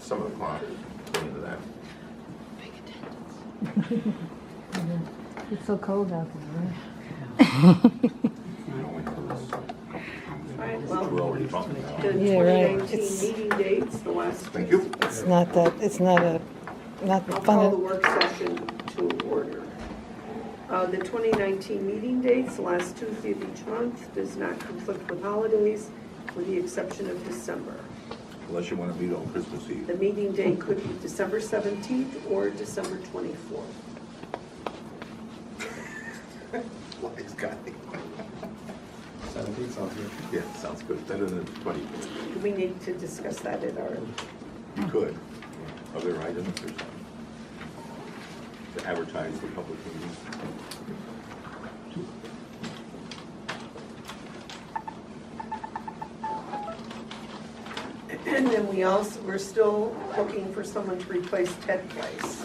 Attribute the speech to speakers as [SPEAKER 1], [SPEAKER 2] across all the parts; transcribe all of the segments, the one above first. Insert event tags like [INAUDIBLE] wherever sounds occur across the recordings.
[SPEAKER 1] Some of the clock went into that.
[SPEAKER 2] It's so cold out there, right?
[SPEAKER 1] We only closed-
[SPEAKER 3] All right,
[SPEAKER 1] We're
[SPEAKER 3] well,
[SPEAKER 1] already bumping now.
[SPEAKER 3] the
[SPEAKER 4] Yeah, right.
[SPEAKER 3] 2019
[SPEAKER 4] It's-
[SPEAKER 3] meeting dates, the last.
[SPEAKER 1] Thank you.
[SPEAKER 4] It's not that, it's not a, not
[SPEAKER 3] I'll call the
[SPEAKER 4] fun.
[SPEAKER 3] work session to order. Uh, The 2019 meeting dates, the last Tuesday of each month, does not conflict with holidays, with the exception of December.
[SPEAKER 1] Unless you want to meet on Christmas Eve.
[SPEAKER 3] The meeting date could be December 17th or December 24th.
[SPEAKER 1] Wise guy.
[SPEAKER 5] Seventeen sounds good.
[SPEAKER 1] Yeah, sounds good. Better than twenty.
[SPEAKER 3] Do we need to discuss that at our,
[SPEAKER 1] You could. Other items or something. To advertise the public meeting.
[SPEAKER 3] and then we also, we're still looking for someone to replace Ted Price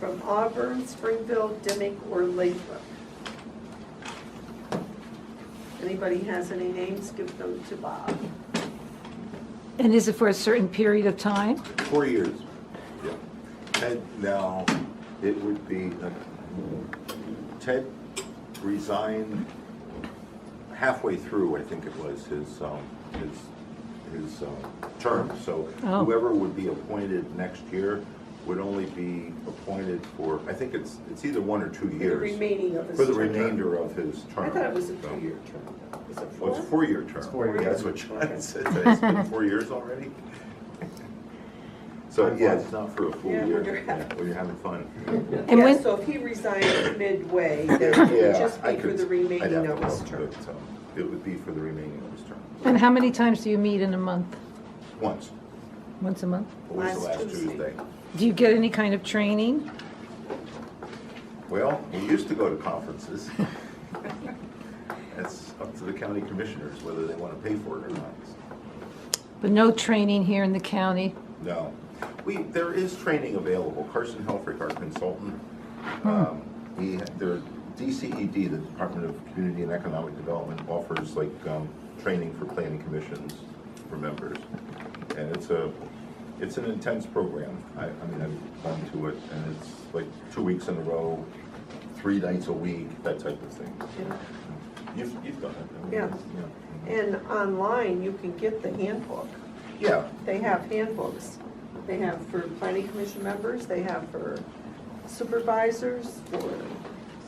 [SPEAKER 3] from Auburn, Springfield, Dimick, or Lathrop. Anybody has any names, give them to Bob.
[SPEAKER 2] And is it for a certain period of time?
[SPEAKER 1] Four years. Yeah. Ted, now, it would be, uh, Ted resigned halfway through, I think it was, his, um, his, his, um, term. So
[SPEAKER 2] Oh.
[SPEAKER 1] whoever would be appointed next year would only be appointed for, I think it's, it's either one or two
[SPEAKER 3] For the
[SPEAKER 1] years.
[SPEAKER 3] remaining of his
[SPEAKER 1] For the
[SPEAKER 3] term.
[SPEAKER 1] remainder of his term.
[SPEAKER 3] I thought it was a
[SPEAKER 1] So-
[SPEAKER 3] two-year term. Is it
[SPEAKER 1] Well,
[SPEAKER 3] four?
[SPEAKER 1] it's a four-year term.
[SPEAKER 5] four years.
[SPEAKER 1] Yeah, That's what John [LAUGHS] said, that it's been four years already. So, yeah, it's not for a full
[SPEAKER 3] Yeah,
[SPEAKER 1] year.
[SPEAKER 3] when you're having-
[SPEAKER 1] Yeah, When you're having fun.
[SPEAKER 2] And
[SPEAKER 3] Yeah,
[SPEAKER 2] when-
[SPEAKER 3] so if he resigned midway, then [LAUGHS] it would
[SPEAKER 1] Yeah,
[SPEAKER 3] just
[SPEAKER 1] I
[SPEAKER 3] be for
[SPEAKER 1] could-
[SPEAKER 3] the
[SPEAKER 1] I'd
[SPEAKER 3] remaining
[SPEAKER 1] have
[SPEAKER 3] of
[SPEAKER 1] to
[SPEAKER 3] his
[SPEAKER 1] look,
[SPEAKER 3] term.
[SPEAKER 1] but, um, It would be for the remaining of his term.
[SPEAKER 2] And how many times do you meet in a month?
[SPEAKER 1] Once,
[SPEAKER 2] Once a month?
[SPEAKER 1] always the
[SPEAKER 3] Last
[SPEAKER 1] last
[SPEAKER 3] Tuesday.
[SPEAKER 1] Tuesday.
[SPEAKER 2] Do you get any kind of training?
[SPEAKER 1] Well, we used to go to
[SPEAKER 3] [LAUGHS]
[SPEAKER 1] conferences. That's up to the county commissioners, whether they want to pay for it or not.
[SPEAKER 2] But no training here in the county?
[SPEAKER 1] No. We, there is training available. Carson Helfrich, our consultant,
[SPEAKER 3] Hmm.
[SPEAKER 1] um, he, their DCED, E the Department of Community and Economic Development, offers like, um, training for planning commissions for members. And it's a, it's an intense program. I, I mean, I've gone to it and it's like two weeks in a row, three nights a week, that type of thing.
[SPEAKER 3] Yeah.
[SPEAKER 1] You've, you've done it. I mean,
[SPEAKER 3] Yeah.
[SPEAKER 1] yeah.
[SPEAKER 3] And online, you can get the handbook.
[SPEAKER 1] Yeah,
[SPEAKER 3] They have handbooks. They have for planning commission members, they have for supervisors, for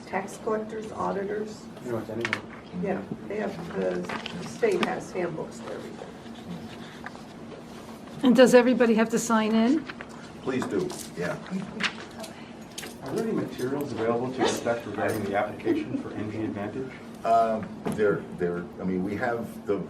[SPEAKER 3] tax collectors, auditors.
[SPEAKER 5] Pretty much anyone.
[SPEAKER 3] Yeah, they have, the state has handbooks for everything.
[SPEAKER 2] And does everybody have to sign in?
[SPEAKER 1] please do, yeah.
[SPEAKER 5] Are there any materials available to inspect regarding the application for NG Advantage?
[SPEAKER 1] Um, There, there, I mean, we have the,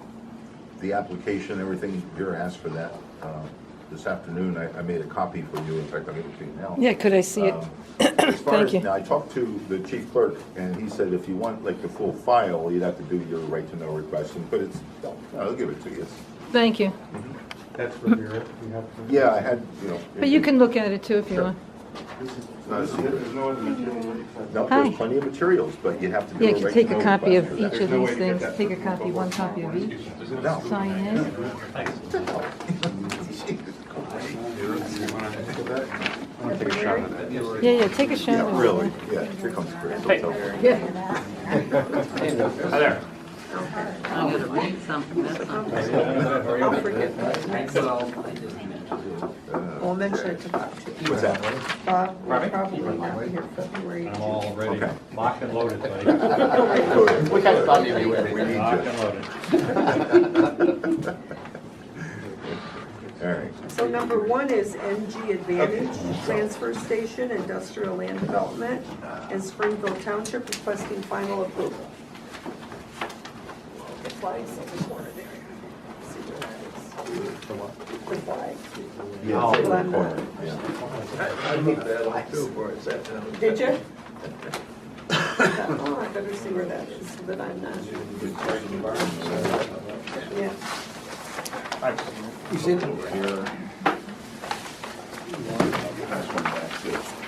[SPEAKER 1] the application, everything, Vera asked for that. uh, This afternoon, I, I made a copy for you, in fact, I'll give it to you now.
[SPEAKER 4] Yeah, could I see it?
[SPEAKER 1] Um, as far
[SPEAKER 4] Thank
[SPEAKER 1] as-
[SPEAKER 4] you.
[SPEAKER 1] Now, I talked to the chief clerk, and he said if you want like the full file, you'd have to do your right to know request, and- but it's, no, I'll give it to you.
[SPEAKER 2] Thank you.
[SPEAKER 5] That's for Vera, you have. for-
[SPEAKER 1] Yeah, I had, you know.
[SPEAKER 2] But you can look at it too if you want.
[SPEAKER 5] This is-
[SPEAKER 1] Not a secret.
[SPEAKER 5] There's no other material. right?
[SPEAKER 1] No,
[SPEAKER 2] Hi.
[SPEAKER 1] there's plenty of materials, but you have to do
[SPEAKER 2] Yeah,
[SPEAKER 1] a
[SPEAKER 2] you
[SPEAKER 1] right
[SPEAKER 2] can
[SPEAKER 1] to
[SPEAKER 2] take a
[SPEAKER 1] know
[SPEAKER 2] copy
[SPEAKER 1] request
[SPEAKER 2] of
[SPEAKER 1] for that.
[SPEAKER 2] each of these things. Take a copy, one copy of each.
[SPEAKER 1] No.
[SPEAKER 2] Sign in.
[SPEAKER 5] I'm gonna take a shot at that.
[SPEAKER 4] Yeah, yeah, take a shot.
[SPEAKER 1] [LAUGHS] Yeah, really, yeah, here comes Chris. he'll tell her.
[SPEAKER 6] Hi there.
[SPEAKER 7] I'm gonna read something, that's not.
[SPEAKER 3] Um, I'll forget that.
[SPEAKER 1] Uh,
[SPEAKER 3] We'll mention it to Bob too.
[SPEAKER 1] What's that?
[SPEAKER 3] Bob will
[SPEAKER 6] Pardon me?
[SPEAKER 3] probably not be here February.
[SPEAKER 6] I'm all ready,
[SPEAKER 1] Okay.
[SPEAKER 6] locked and loaded, buddy.
[SPEAKER 1] [LAUGHS] We
[SPEAKER 7] kind of thought you'd be
[SPEAKER 1] We need
[SPEAKER 6] Locked
[SPEAKER 1] you.
[SPEAKER 6] and loaded.
[SPEAKER 1] All right.
[SPEAKER 3] So number one is NG Advantage, Transfer Station, Industrial Land Development, and Springfield Township requesting final approval. The flag's in the corner there. See where that
[SPEAKER 5] For what?
[SPEAKER 3] is? The flag.
[SPEAKER 1] Yeah, it's in the
[SPEAKER 3] Oh.
[SPEAKER 1] corner, yeah.
[SPEAKER 8] I looked that up too for a second.
[SPEAKER 3] Did [LAUGHS] you? Oh, I better see where that is, so that I'm not, yeah.
[SPEAKER 1] Here. Pass one back, too.